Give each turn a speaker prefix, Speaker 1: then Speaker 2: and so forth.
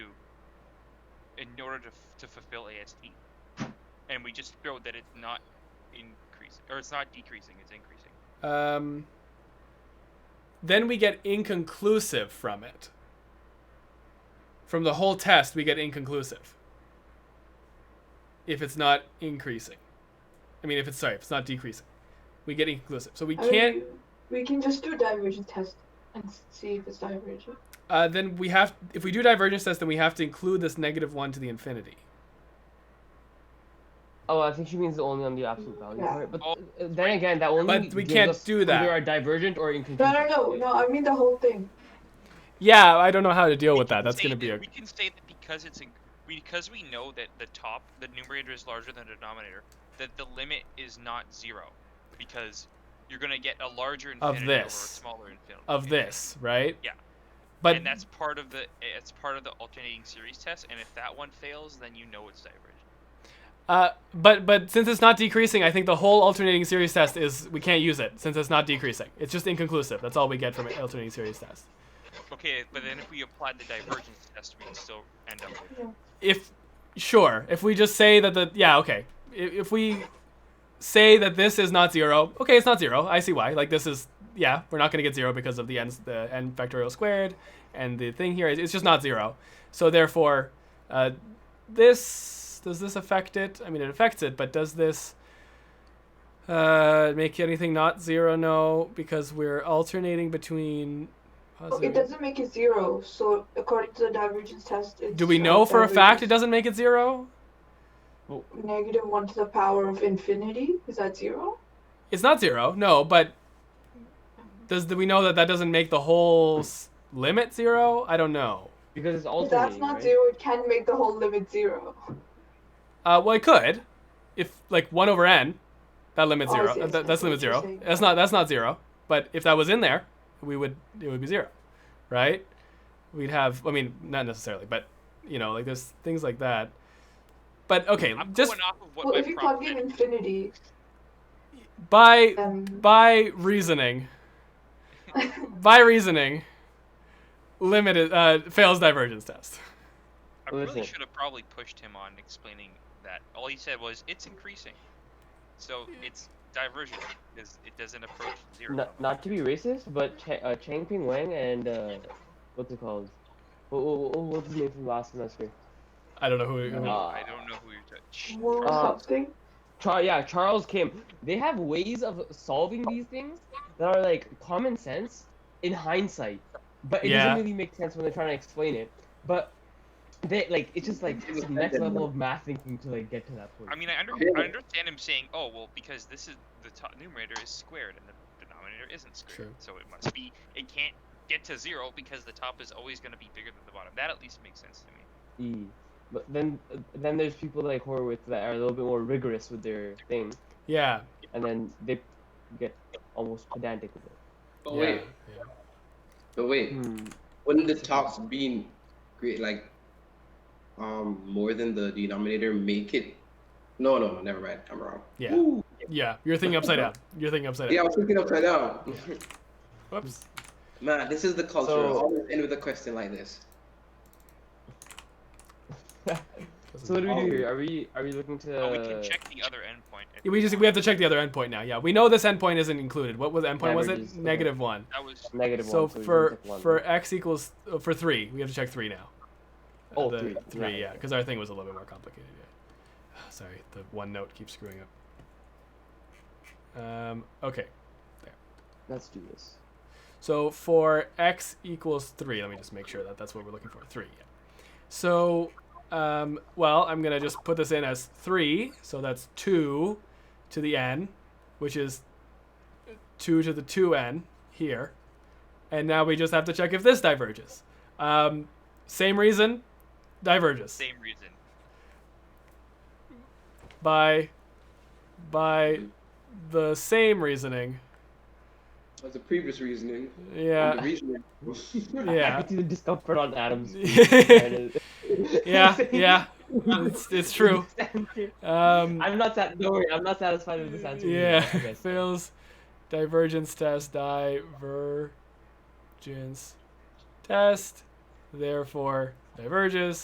Speaker 1: in order to, f- to fulfill AST. And we just showed that it's not increasing, or it's not decreasing, it's increasing.
Speaker 2: Um, then we get inconclusive from it. From the whole test, we get inconclusive. If it's not increasing, I mean, if it's sorry, if it's not decreasing, we get inconclusive. So we
Speaker 3: I mean,
Speaker 2: can't.
Speaker 3: we can just do a divergence test and s- see if it's divergent.
Speaker 2: Uh, then we have, if we do divergence test, then we have to include this negative one to the infinity.
Speaker 4: Oh, I think she means only on the absolute value
Speaker 3: Yeah.
Speaker 4: part. But
Speaker 1: Oh.
Speaker 4: uh, then again, that only
Speaker 2: But we
Speaker 4: gives
Speaker 2: can't
Speaker 4: us
Speaker 2: do that.
Speaker 4: Either a divergent or inconsistent.
Speaker 3: No, no, no, no. I mean the whole thing.
Speaker 2: Yeah, I don't know how to deal
Speaker 1: We
Speaker 2: with that.
Speaker 1: can
Speaker 2: That's
Speaker 1: say
Speaker 2: going to be a.
Speaker 1: We can say that because it's, in- because we know that the top, the numerator is larger than the denominator, that the limit is not zero. Because you're going to get a larger infinity over a
Speaker 2: this.
Speaker 1: smaller infinity.
Speaker 2: of this, right?
Speaker 1: Yeah.
Speaker 2: But
Speaker 1: and that's part of the it's part of the alternating series test. And if that one fails, then you know it's divergent.
Speaker 2: uh, but but since it's not decreasing, I think the whole alternating series test is we can't use it since it's not decreasing. It's just inconclusive. That's all we get from an alternating series test.
Speaker 1: Okay, but then if we applied the divergence test, we'd still end up with
Speaker 2: If sure, if we just say that the yeah okay, if, if we say that this is not zero, okay, it's not zero. I see why. Like this is yeah, we're not gonna get zero because of the n the n factorial squared, and the thing here is it's just not zero. So therefore, uh, this does this affect it? I mean, it affects it, but does this uh, make anything not zero? No, because we're alternating between.
Speaker 3: Oh, it doesn't make it zero. So according to the divergence test, it's
Speaker 2: Do we
Speaker 3: uh,
Speaker 2: know for a fact it
Speaker 3: divergence
Speaker 2: doesn't make it zero?
Speaker 3: negative one to the power of infinity. Is that zero?
Speaker 2: It's not zero, no, but does do we know that that doesn't make the whole s- limit zero? I don't know.
Speaker 4: Because it's
Speaker 3: If
Speaker 4: alternating.
Speaker 3: that's not
Speaker 4: right?
Speaker 3: zero. It can make the whole limit zero.
Speaker 2: Uh, well, it could, if like one over n, that limits
Speaker 3: Oh, I
Speaker 2: zero.
Speaker 3: see, I
Speaker 2: uh,
Speaker 3: see,
Speaker 2: that-
Speaker 3: I
Speaker 2: that's
Speaker 3: see
Speaker 2: limit
Speaker 3: what you're
Speaker 2: zero.
Speaker 3: saying.
Speaker 2: That's not that's not zero. But if that was in there, we would it would be zero, right? We'd have. I mean, not necessarily, but you know, like there's things like that. But okay,
Speaker 1: I'm
Speaker 2: just
Speaker 1: going off of what
Speaker 3: Well,
Speaker 1: my
Speaker 3: if you
Speaker 1: prompt
Speaker 3: plug in
Speaker 1: is.
Speaker 3: infinity,
Speaker 2: by
Speaker 3: then
Speaker 2: by reasoning, by reasoning, limit is- uh, fails divergence test.
Speaker 1: I really
Speaker 4: Listen.
Speaker 1: should have probably pushed him on explaining that. All he said was it's increasing, so it's divergent because it doesn't approach zero.
Speaker 4: Not, not to be racist, but Ch- uh, Chang Ping Wang and uh, what's it called? What, what, what's his name from last semester?
Speaker 2: I don't know who. who-
Speaker 4: Uh,
Speaker 1: I don't know who you're talking. Shh,
Speaker 3: or
Speaker 1: Charles.
Speaker 4: Uh,
Speaker 3: something.
Speaker 4: Char- yeah, Charles Kim. They have ways of solving these things that are like common sense in hindsight, but it
Speaker 2: Yeah.
Speaker 4: doesn't really make sense when they're trying to explain it. But they like it's just like it's the next level of math thinking to like get to that point.
Speaker 1: I mean, I, under- I understand him saying, "Oh, well, because this is the top numerator is squared and the denominator isn't squared,
Speaker 2: True.
Speaker 1: so it must be it can't get to zero because the top is always going to be bigger than the bottom." That at least makes sense to me.
Speaker 4: E. But then then there's people like Horowitz that are a little bit more rigorous with their thing,
Speaker 2: yeah.
Speaker 4: and then they get almost pedantic with it.
Speaker 5: But
Speaker 2: yeah,
Speaker 5: Oh, wait,
Speaker 2: yeah.
Speaker 5: but wait,
Speaker 4: Hmm.
Speaker 5: wouldn't the tops being great like um more than the denominator make it? No, no, no, never mind. I'm wrong.
Speaker 2: Yeah.
Speaker 5: Woo!
Speaker 2: Yeah, you're thinking upside down. You're thinking upside
Speaker 5: Yeah, I
Speaker 2: down.
Speaker 5: was thinking upside down.
Speaker 2: Whoops.
Speaker 5: Man, this is the culture.
Speaker 4: So-
Speaker 5: Always end with a question like this.
Speaker 4: So what do we do here? Are we are we looking to?
Speaker 1: but Oh, we can check the other endpoint. if
Speaker 2: Uh, We just we have to check the other endpoint now. Yeah, we know this endpoint isn't included. What was the endpoint? Was
Speaker 4: Averages,
Speaker 2: it
Speaker 4: okay.
Speaker 2: negative one?
Speaker 1: that was
Speaker 4: negative
Speaker 2: So
Speaker 4: one, we can
Speaker 2: for
Speaker 4: check one.
Speaker 2: for x equals uh, for three, we have to check three now.
Speaker 4: Oh,
Speaker 2: the
Speaker 4: three,
Speaker 2: Three, yeah,
Speaker 4: yeah.
Speaker 2: because our thing was a little bit more complicated. Yeah. Sorry, the one note keeps screwing up. Um. Okay.
Speaker 4: let's do this.
Speaker 2: So for x equals 3, let me just make sure that that's what we're looking for. 3, yeah. So, um, well, I'm going to just put this in as 3. So that's 2 to the n, which is 2 to the 2n here. And now we just have to check if this diverges. Um, same reason, diverges.
Speaker 1: same reason.
Speaker 2: By, by the same reasoning.
Speaker 5: That's the previous reasoning.
Speaker 2: Yeah.
Speaker 5: The reasoning.
Speaker 4: I
Speaker 2: yeah.
Speaker 4: could see the discomfort on Adam's.
Speaker 2: yeah, yeah. It's, it's true. Um,
Speaker 4: I'm not sat. Don't worry, I'm not satisfied with this answer.
Speaker 2: yeah,
Speaker 4: either, I guess.
Speaker 2: fails divergence test, divergence test, therefore diverges.